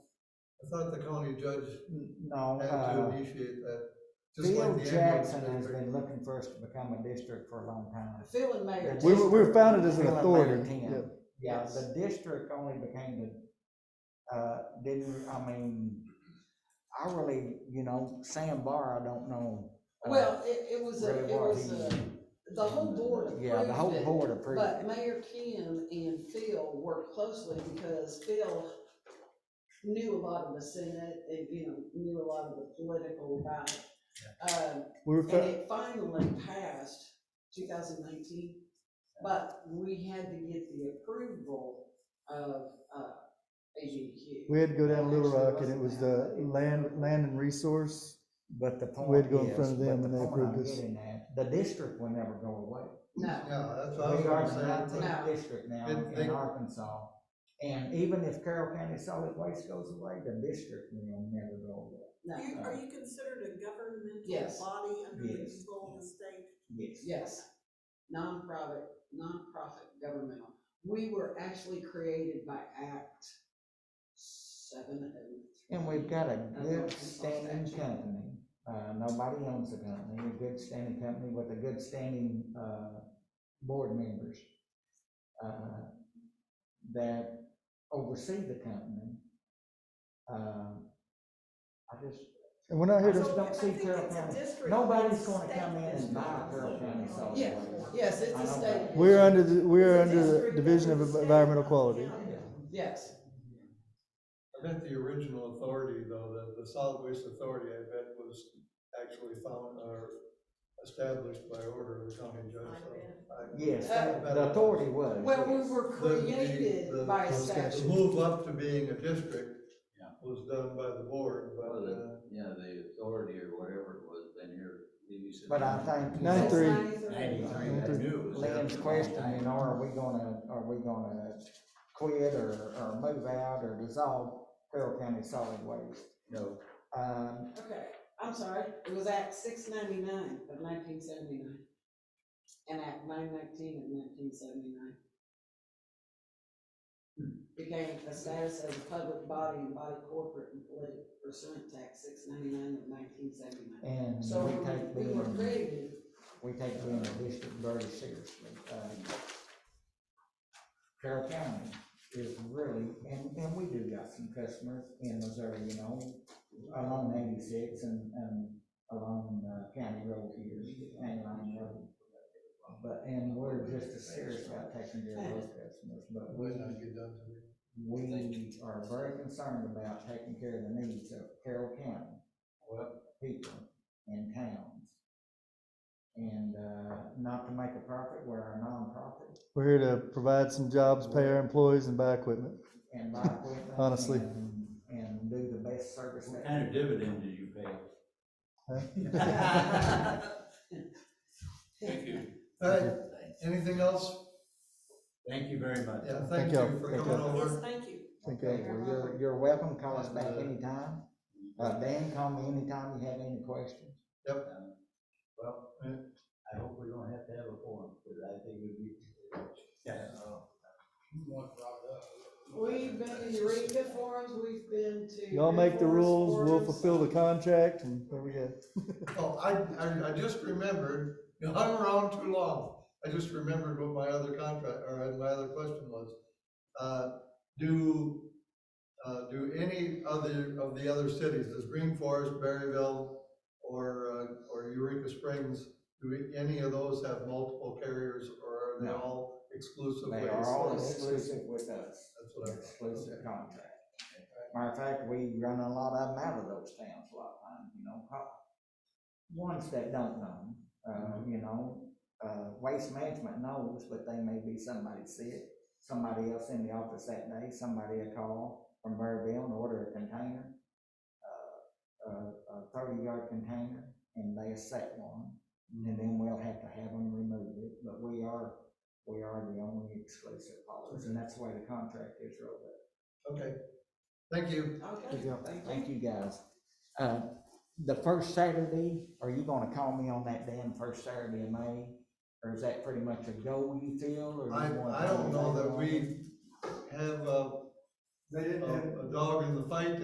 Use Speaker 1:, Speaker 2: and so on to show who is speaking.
Speaker 1: thought the county judge
Speaker 2: N- No,
Speaker 1: had to
Speaker 2: uh,
Speaker 1: initiate that. just like
Speaker 2: Bill
Speaker 1: the ambulance
Speaker 2: Jackson has
Speaker 1: district.
Speaker 2: been looking for us to become a district for a long time.
Speaker 3: Phil and Mayor.
Speaker 2: That's-
Speaker 4: We were, we were founded as an
Speaker 2: Phil and
Speaker 4: authority.
Speaker 2: Mayor Tim.
Speaker 4: yeah.
Speaker 2: Yeah,
Speaker 3: Yes.
Speaker 2: Uh, the district only became the, uh, didn't, I mean, I really, you know, Sam Barr, I don't know. uh,
Speaker 3: Well, it, it was, a-
Speaker 2: really
Speaker 3: it
Speaker 2: what
Speaker 3: was,
Speaker 2: he-
Speaker 3: a- the whole board approved
Speaker 2: Yeah, the whole
Speaker 3: it,
Speaker 2: board approved
Speaker 3: But
Speaker 2: it.
Speaker 3: Mayor Kim and Phil worked closely because Phil knew a lot of the Senate, and, you know, knew a lot of the political about it. Um,
Speaker 4: We were,
Speaker 3: and
Speaker 4: fo-
Speaker 3: it finally passed two thousand nineteen, but we had to get the approval of, uh, AGQ.
Speaker 4: we had to go down
Speaker 3: That
Speaker 4: Little
Speaker 3: actually
Speaker 4: Rock and it
Speaker 3: wasn't
Speaker 4: was
Speaker 3: that
Speaker 4: the
Speaker 3: big.
Speaker 4: land, land and resource.
Speaker 2: But the point is.
Speaker 4: We had to go in front of
Speaker 2: but
Speaker 4: them
Speaker 2: the
Speaker 4: and they
Speaker 2: point
Speaker 4: approved
Speaker 2: I'm
Speaker 4: us.
Speaker 2: getting at, The district will never go away.
Speaker 3: No.
Speaker 1: Yeah, that's what I was
Speaker 2: We are
Speaker 1: gonna
Speaker 2: the
Speaker 1: say.
Speaker 2: nineteenth
Speaker 3: No.
Speaker 2: district now
Speaker 1: It-
Speaker 2: in
Speaker 1: they-
Speaker 2: Arkansas. And even if Carroll County Solid Waste goes away, the district will never go away.
Speaker 3: No,
Speaker 5: You, are you considered a governmental
Speaker 3: Yes.
Speaker 5: body under the
Speaker 2: Yes.
Speaker 5: control of the state?
Speaker 2: Yes.
Speaker 3: yes, nonprofit, nonprofit governmental. We were actually created by Act seven oh.
Speaker 2: And we've got a
Speaker 3: That's what
Speaker 2: good
Speaker 3: we saw
Speaker 2: standing
Speaker 3: statute.
Speaker 2: company, uh, nobody owns the company, a good standing company with a good standing, uh, board members. uh, That oversee the company. Uh, I just,
Speaker 4: And we're not here
Speaker 2: So-
Speaker 4: to,
Speaker 2: don't see Carroll County. nobody's gonna come in and buy Carroll County solid
Speaker 3: Yeah.
Speaker 2: waste.
Speaker 3: Yes, it's
Speaker 2: I
Speaker 3: a
Speaker 2: don't
Speaker 3: state.
Speaker 2: know.
Speaker 4: we're under, the
Speaker 5: It's
Speaker 4: we're
Speaker 5: a
Speaker 4: under the
Speaker 5: district
Speaker 4: Division of
Speaker 5: under the state,
Speaker 4: Environmental
Speaker 5: not the
Speaker 4: Quality.
Speaker 5: county.
Speaker 3: Yes,
Speaker 1: I bet the original authority, though, the, the solid waste authority, I bet was actually found, or established by order of the county judge, so. I-
Speaker 2: Yes,
Speaker 1: Uh,
Speaker 2: the authority was.
Speaker 3: well, we
Speaker 2: yes.
Speaker 3: were
Speaker 1: The- the- the-
Speaker 3: created by a
Speaker 4: Those guys-
Speaker 1: The
Speaker 3: statute.
Speaker 1: move up to being a district
Speaker 6: Yeah.
Speaker 1: was done by the board, but,
Speaker 6: Well,
Speaker 1: uh,
Speaker 6: the, yeah, the authority or whatever it was, been here, maybe since.
Speaker 2: But I think-
Speaker 4: Nine three.
Speaker 6: Ninety-three, that news.
Speaker 2: Lynn's question, you know, are we gonna, are we gonna quit or, or move out or dissolve Carroll County Solid Waste?
Speaker 6: No,
Speaker 2: Um,
Speaker 3: Okay, I'm sorry, it was Act six ninety-nine of nineteen seventy-nine. And Act nine nineteen of nineteen seventy-nine. Became a status as a public body and body corporate and political pursuant to Act six ninety-nine of nineteen seventy-nine.
Speaker 2: and
Speaker 3: So
Speaker 2: we take
Speaker 3: we were
Speaker 2: being,
Speaker 3: created,
Speaker 2: we take being a district very seriously. Um, Carroll County is really, and, and we do got some customers in Missouri, you know, along eighty-six and, and along uh, County Road here, County Line Road. But, and we're just as serious about taking care of those customers, but we,
Speaker 1: when I get done to me.
Speaker 2: we are very concerned about taking care of the needs of Carroll County. People and towns. And, uh, not to make a profit, we're a nonprofit
Speaker 4: We're here to provide some jobs, pay our employees and buy equipment.
Speaker 2: and buy equipment.
Speaker 4: Honestly.
Speaker 2: And and do the best service.
Speaker 6: What
Speaker 2: that-
Speaker 6: kind of dividend do you pay?
Speaker 3: Thank
Speaker 6: you.
Speaker 1: All right, anything else?
Speaker 6: Thank you very much.
Speaker 1: Yeah,
Speaker 4: Thank
Speaker 1: thank you
Speaker 4: y'all.
Speaker 1: for
Speaker 4: Thank
Speaker 1: coming
Speaker 4: y'all.
Speaker 5: Yes,
Speaker 1: over.
Speaker 5: thank you.
Speaker 4: Thank
Speaker 2: Okay,
Speaker 4: you.
Speaker 2: well, you're, you're welcome, call us back anytime. Uh, Dan, call me anytime you have any questions.
Speaker 6: Well, I hope we don't have to have a forum, because I think it'd be. Uh, Yeah.
Speaker 3: we've been in Eureka forums, we've been to.
Speaker 4: Y'all make the
Speaker 3: Air Force
Speaker 4: rules, we'll
Speaker 3: forums.
Speaker 4: fulfill the contract and there we go.
Speaker 1: Oh, I, I, I just remembered, you know, I'm around too long. I just remembered what my other contract, or my other question was. Uh, do, uh, do any other, of the other cities, does Green Forest, Berryville, or, uh, or Eureka Springs, do any of those have multiple carriers, or are they
Speaker 2: No.
Speaker 1: all exclusively?
Speaker 2: They are all exclusive with us,
Speaker 1: That's what I.
Speaker 2: exclusive contract. Matter of fact, we run a lot of them out of those towns a lot of times, you know, pro- ones that don't know, uh, you know, uh, waste management knows, but they may be somebody sick, somebody else in the office that day, somebody a call from Burrville and order a container, uh, a, a thirty-yard container, and they accept one, and then we'll have to have them remove it, but we are, we are the only exclusive haulers, and that's the way the contract is wrote up.
Speaker 1: Okay, thank you.
Speaker 3: Okay,
Speaker 4: Thank y'all.
Speaker 3: thank you.
Speaker 2: Thank you, guys. Uh, The first Saturday, are you gonna call me on that damn first Saturday in May? Or is that pretty much a goal you feel, or? you
Speaker 1: I,
Speaker 2: wanna
Speaker 1: I don't know
Speaker 2: call me
Speaker 1: that
Speaker 2: on it?
Speaker 1: we have a,
Speaker 2: They didn't
Speaker 1: a a dog in the fight